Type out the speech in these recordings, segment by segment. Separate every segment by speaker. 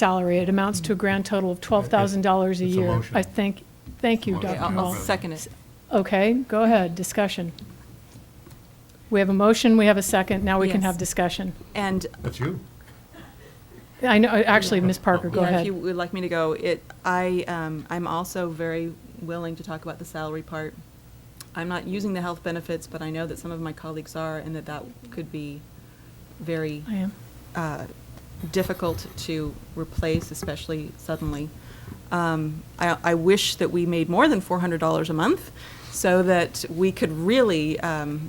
Speaker 1: salary. It amounts to a grand total of $12,000 a
Speaker 2: It's a
Speaker 1: year.
Speaker 2: motion.
Speaker 1: I think, thank you,
Speaker 2: It's a
Speaker 1: Dr.
Speaker 2: motion.
Speaker 1: Hall.
Speaker 2: I'll
Speaker 3: I'll second it.
Speaker 1: Okay, go ahead, discussion. We have a motion, we have a second, now we can
Speaker 3: Yes.
Speaker 1: have discussion.
Speaker 3: And
Speaker 2: That's you.
Speaker 1: I know, actually, Ms. Parker, go
Speaker 3: yeah, if
Speaker 1: ahead.
Speaker 3: you would like me to go, it, I, um, I'm also very willing to talk about the salary part. I'm not using the health benefits, but I know that some of my colleagues are, and that that could be very
Speaker 1: I am.
Speaker 3: uh, difficult to replace, especially suddenly. Um, I, I wish that we made more than $400 a month so that we could really um,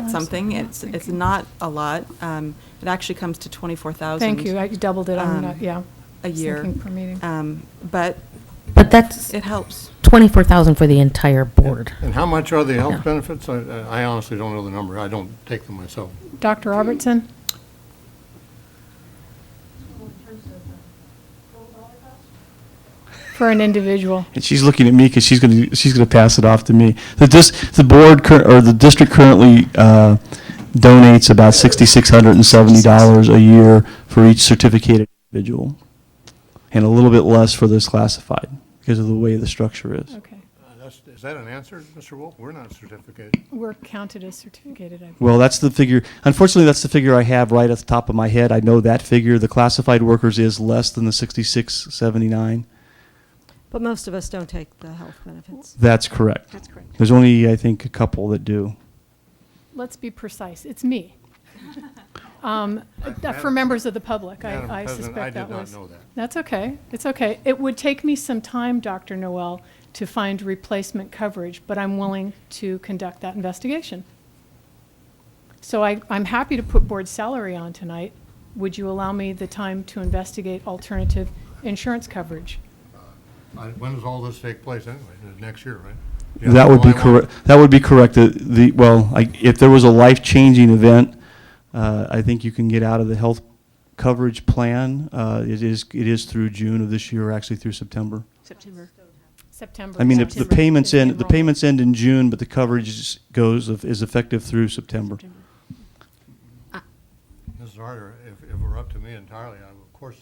Speaker 1: No, that's what
Speaker 3: something.
Speaker 1: I'm not
Speaker 3: It's, it's
Speaker 1: thinking.
Speaker 3: not a lot. Um, It actually comes to 24,000.
Speaker 1: Thank you, I doubled it, I'm
Speaker 3: um,
Speaker 1: not, yeah.
Speaker 3: a
Speaker 1: Just
Speaker 3: year.
Speaker 1: Thinking per meeting.
Speaker 3: Um, But
Speaker 4: But that's
Speaker 3: it helps.
Speaker 4: twenty-four thousand for the entire board.
Speaker 2: And how much are the
Speaker 4: Yeah.
Speaker 2: health benefits? I- I I honestly don't know the number. I don't take them myself.
Speaker 1: Dr. Robertson? For an individual.
Speaker 5: And she's looking at me because she's going to she's going to pass it off to me. The dis, the board cur, or the district currently uh, donates about sixty six hundred and seventy dollars a year for each certificated individual, and a little bit less for those classified because of the way the structure is.
Speaker 1: Okay.
Speaker 2: Uh, that's- Is that an answer, Mr. Wolf? We're not certificated.
Speaker 1: We're counted as certificated, I believe.
Speaker 5: Well, that's the figure. Unfortunately, that's the figure I have right at the top of my head. I know that figure. The classified workers is less than the sixty six seventy nine.
Speaker 6: But most of us don't take the health benefits.
Speaker 5: That's correct.
Speaker 6: That's correct.
Speaker 5: There's only I think a couple that do.
Speaker 1: Let's be precise, it's me. Um, uh,
Speaker 2: Madam
Speaker 1: For members of the public,
Speaker 2: Madam
Speaker 1: I I
Speaker 2: President, I
Speaker 1: suspect that
Speaker 2: did not
Speaker 1: was.
Speaker 2: know that.
Speaker 1: That's okay, it's okay. It would take me some time, Dr. Noel, to find replacement coverage, but I'm willing to conduct that investigation. So I, I'm happy to put board salary on tonight. Would you allow me the time to investigate alternative insurance coverage?
Speaker 2: I- When does all this take place anyway? Uh, Next year, right? Yeah,
Speaker 5: That would be
Speaker 2: July one?
Speaker 5: correct, that would be correct, the, the, well, I, if there was a life-changing event, uh, I think you can get out of the health coverage plan, uh, it is, it is through June of this year, actually through September.
Speaker 3: September.
Speaker 1: September.
Speaker 5: I mean, the- the
Speaker 1: September.
Speaker 5: payments end, the payments end in June, but the coverage is- goes, of- is effective through September.
Speaker 2: Mrs. Harder, if if it were up to me entirely, I would, of course,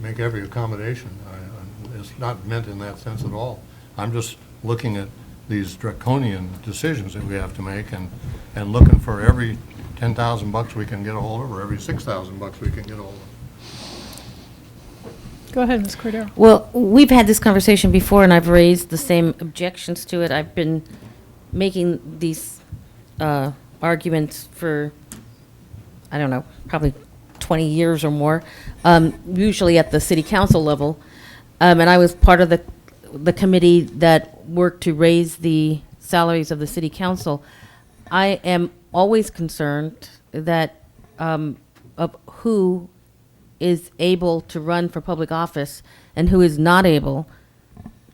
Speaker 2: make every accommodation. I- I- It's not meant in that sense at all. I'm just looking at these draconian decisions that we have to make and, and looking for every 10,000 bucks we can get a hold of, or every 6,000 bucks we can get a hold of.
Speaker 1: Go ahead, Ms. Cordero.
Speaker 4: Well, we've had this conversation before, and I've raised the same objections to it. I've been making these uh, arguments for, I don't know, probably 20 years or more, um, usually at the city council level. Um, And I was part of the, the committee that worked to raise the salaries of the city council. I am always concerned that, um, of who is able to run for public office and who is not able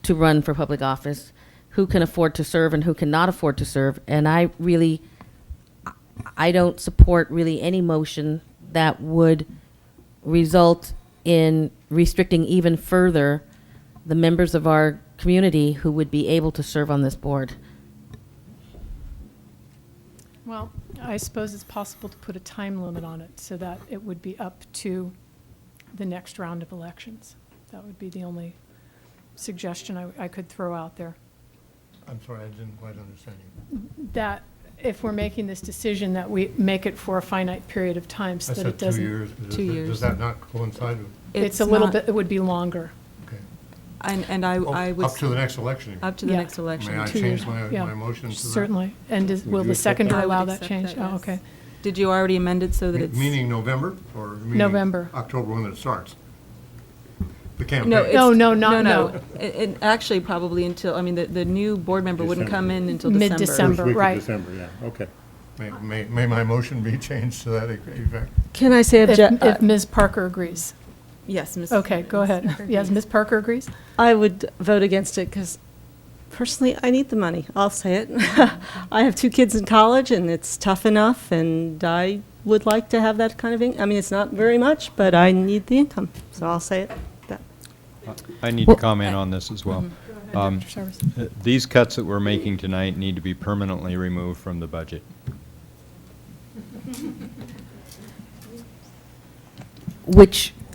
Speaker 4: to run for public office, who can afford to serve and who cannot afford to serve. And I really, I don't support really any motion that would result in restricting even further the members of our community who would be able to serve on this board.
Speaker 1: Well, I suppose it's possible to put a time limit on it so that it would be up to the next round of elections. That would be the only suggestion I, I could throw out there.
Speaker 2: I'm sorry, I didn't quite understand you.
Speaker 1: That if we're making this decision, that we make it for a finite period of time so
Speaker 2: I
Speaker 1: that it
Speaker 2: said two
Speaker 1: doesn't.
Speaker 2: years. Does-
Speaker 3: two
Speaker 2: Does
Speaker 3: years.
Speaker 2: that not coincide with,
Speaker 1: It's a little bit, it would be longer.
Speaker 2: okay.
Speaker 3: And, and I,
Speaker 2: Oh,
Speaker 3: I would.
Speaker 2: Up to the next election.
Speaker 3: Up to the
Speaker 1: Yeah.
Speaker 3: next election.
Speaker 2: May I
Speaker 1: two years.
Speaker 2: change my,
Speaker 1: Yeah,
Speaker 2: my motion to that?
Speaker 1: Certainly. And is-
Speaker 2: Would
Speaker 1: will
Speaker 2: you
Speaker 1: the
Speaker 2: accept
Speaker 1: seconder
Speaker 2: that?
Speaker 3: I would
Speaker 1: allow that
Speaker 3: accept
Speaker 1: change?
Speaker 3: that,
Speaker 1: Oh,
Speaker 3: yes.
Speaker 1: okay.
Speaker 3: Did you already amend it so that
Speaker 2: Me-
Speaker 3: it's?
Speaker 2: Meaning November or? meaning
Speaker 1: November.
Speaker 2: October when it starts? The campaign?
Speaker 3: No, it's-
Speaker 1: No, no, not- no.
Speaker 3: It, it actually probably until, I mean, the, the new board member wouldn't come in until December.
Speaker 1: Mid-December. First week of right.
Speaker 7: December, yeah, okay.
Speaker 2: May- May, may my motion be changed to that effect?
Speaker 6: Can I say, uh,
Speaker 1: If,
Speaker 6: obje-
Speaker 1: if Ms. Parker agrees.
Speaker 3: Yes, uh, Ms.
Speaker 1: Okay, go
Speaker 3: Ms.
Speaker 1: ahead.
Speaker 3: Perkins.
Speaker 1: Yes, Ms. Parker agrees?
Speaker 6: I would vote against it because personally, I need the money. I'll say it. I have two kids in college and it's tough enough and I would like to have that kind of income. I mean, it's not very much, but I need the income. So I'll say it. That- Mm-hmm.
Speaker 7: I need to
Speaker 4: Well-
Speaker 7: comment on this as
Speaker 3: Mm-hmm.
Speaker 7: well. Um,
Speaker 1: Dr. Sarves.
Speaker 7: uh, These cuts that we're making tonight need to be permanently removed from the budget.
Speaker 4: Which